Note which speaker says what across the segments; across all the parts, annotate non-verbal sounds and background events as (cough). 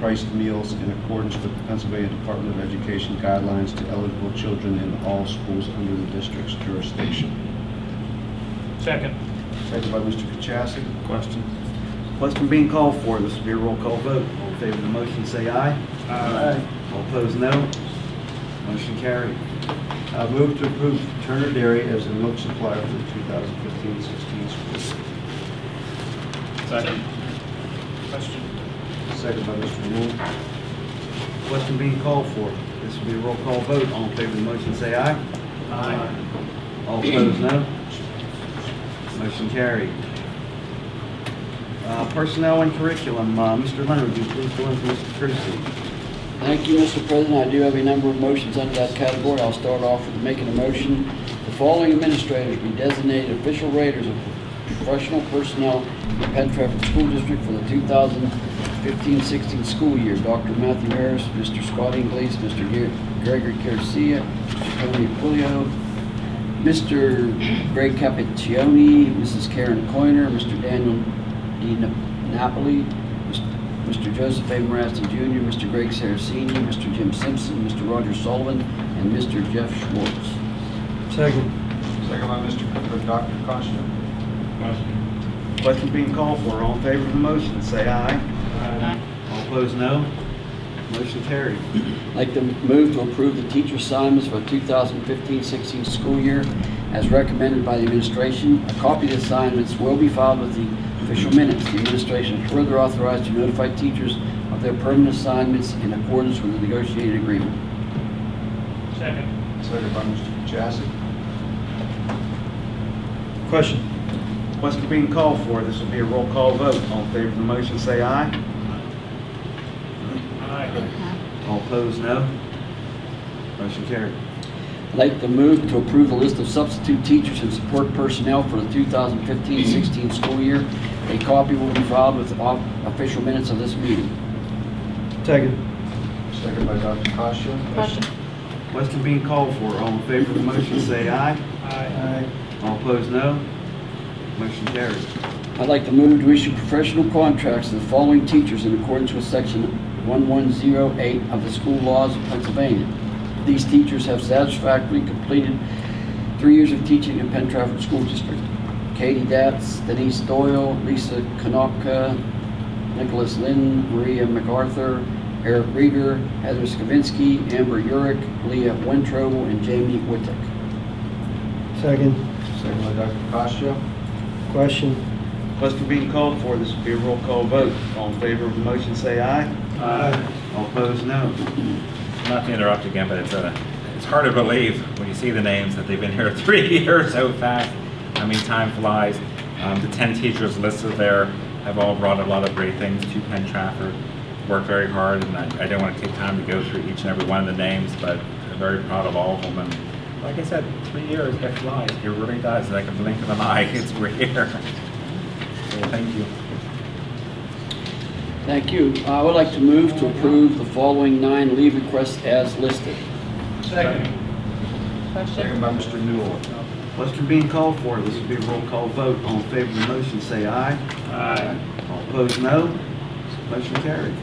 Speaker 1: price of meals in accordance with the Pennsylvania Department of Education guidelines to eligible children in all schools under the district's jurisdiction.
Speaker 2: Second.
Speaker 1: Second by Mr. Kachasik.
Speaker 2: Question.
Speaker 3: Question being called for, this will be a roll call vote. All in favor of the motion, say aye. All opposed, no. Motion carried.
Speaker 1: Uh, Move to approve Turner Dairy as the milk supplier for the 2015-16 school year.
Speaker 2: Second. Question.
Speaker 1: Second by Mr. Rule.
Speaker 3: Question being called for, this will be a roll call vote. All in favor of the motion, say aye.
Speaker 2: Aye.
Speaker 3: All opposed, no. Motion carried. Uh, Personnel and curriculum, uh, Mr. Leonard, would you please join with Mr. Tracy?
Speaker 4: Thank you, Mr. President. I do have a number of motions under that category. I'll start off with making a motion. The following administrators be designated official raters of professional personnel in the Penn Trafford School District for the 2015-16 school year. Dr. Matthew Harris, Mr. Scott Inglis, Mr. Ge- Gregory Garcia, Mr. Tony Pulio, Mr. Greg Capiccioni, Mrs. Karen Coiner, Mr. Daniel D. Napoli, Mr. Joseph A. Marasty Jr., Mr. Greg Saraceni, Mr. Jim Simpson, Mr. Roger Sullivan, and Mr. Jeff Schwartz.
Speaker 3: Second.
Speaker 1: Second by Mr. Co- or Dr. Costa.
Speaker 2: Question.
Speaker 3: Question being called for, all in favor of the motion, say aye.
Speaker 2: Aye.
Speaker 3: All opposed, no. Motion carried.
Speaker 4: I'd like to move to approve the teacher assignments for 2015-16 school year as recommended by the administration. A copy of the assignments will be filed with the official minutes. The administration is further authorized to notify teachers of their permanent assignments in accordance with the negotiated agreement.
Speaker 2: Second.
Speaker 1: Second by Mr. Kachasik.
Speaker 3: Question. Question being called for, this will be a roll call vote. All in favor of the motion, say aye.
Speaker 2: Aye.
Speaker 3: All opposed, no. Motion carried.
Speaker 4: I'd like to move to approve a list of substitute teachers and support personnel for the 2015-16 school year. A copy will be filed with off- official minutes of this meeting.
Speaker 3: Second.
Speaker 1: Second by Dr. Costa.
Speaker 5: Question.
Speaker 3: Question being called for, all in favor of the motion, say aye.
Speaker 2: Aye.
Speaker 3: All opposed, no. Motion carried.
Speaker 4: I'd like to move to issue professional contracts to the following teachers in accordance with Section 1108 of the School Laws of Pennsylvania. These teachers have satisfactorily completed three years of teaching in Penn Trafford School District. Katie Datz, Denise Doyle, Lisa Konopka, Nicholas Lynn, Maria MacArthur, Eric Rieger, Heather Skavinsky, Amber Urick, Leah Wintrow, and Jamie Wittek.
Speaker 6: Second,
Speaker 1: Second by Dr. Costa.
Speaker 6: question,
Speaker 3: Question being called for, this will be a roll call vote. All in favor of the motion, say aye.
Speaker 2: Aye.
Speaker 3: All opposed, no.
Speaker 7: Not to interrupt again, but it's, uh, it's hard to believe when you see the names that they've been here (laughs) three years so fast. I mean, time flies. Um, the ten teachers listed there have all brought a lot of great things to Penn Trafford. Worked very hard, and I, I don't want to take time to go through each and every one of the names, but I'm very proud of all of them. And like I said, three years, it flies. It really does. Like a blink of an eye, (laughs) it's we're here. So thank you.
Speaker 4: Thank you. I would like to move to approve the following nine leave requests as listed.
Speaker 2: Second.
Speaker 1: Second
Speaker 5: Question.
Speaker 1: by Mr. Newell.
Speaker 3: Question being called for, this will be a roll call vote. All in favor of the motion, say aye.
Speaker 2: Aye.
Speaker 3: All opposed, no. Motion carried.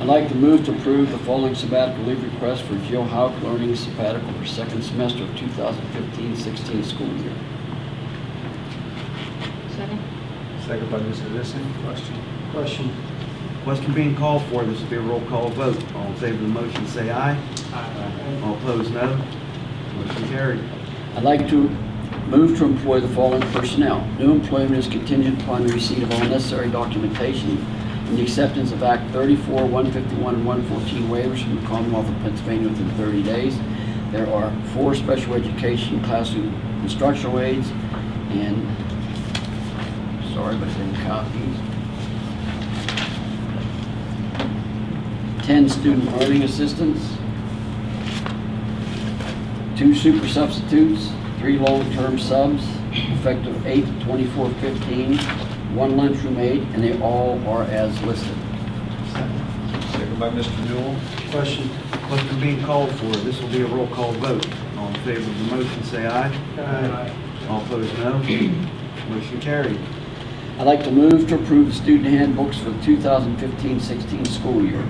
Speaker 4: I'd like to move to approve the following sabbatical leave request for Jill Hauk learning sabbatical for second semester of 2015-16 school year.
Speaker 5: Second.
Speaker 1: Second by Mrs. Nissen.
Speaker 2: Question.
Speaker 6: question,
Speaker 3: Question being called for, this will be a roll call vote. All in favor of the motion, say aye.
Speaker 2: Aye.
Speaker 3: All opposed, no. Motion carried.
Speaker 4: I'd like to move to employ the following personnel. New employment is contingent upon the receipt of all necessary documentation and the acceptance of Act 34, 151, and 114 waivers from the Commonwealth of Pennsylvania within 30 days. There are four special education classroom instructional aides and, sorry, but then copies. 10 student learning assistants two super substitutes, three long-term subs, effective 8 24 15 one lunchroom aide, and they all are as listed.
Speaker 1: Second by Mr. Newell.
Speaker 6: question,
Speaker 3: Question being called for, this will be a roll call vote. All in favor of the motion, say aye.
Speaker 6: aye,
Speaker 3: All opposed, no. Motion carried.
Speaker 4: I'd like to move to approve the student handbooks for the 2015-16 school year.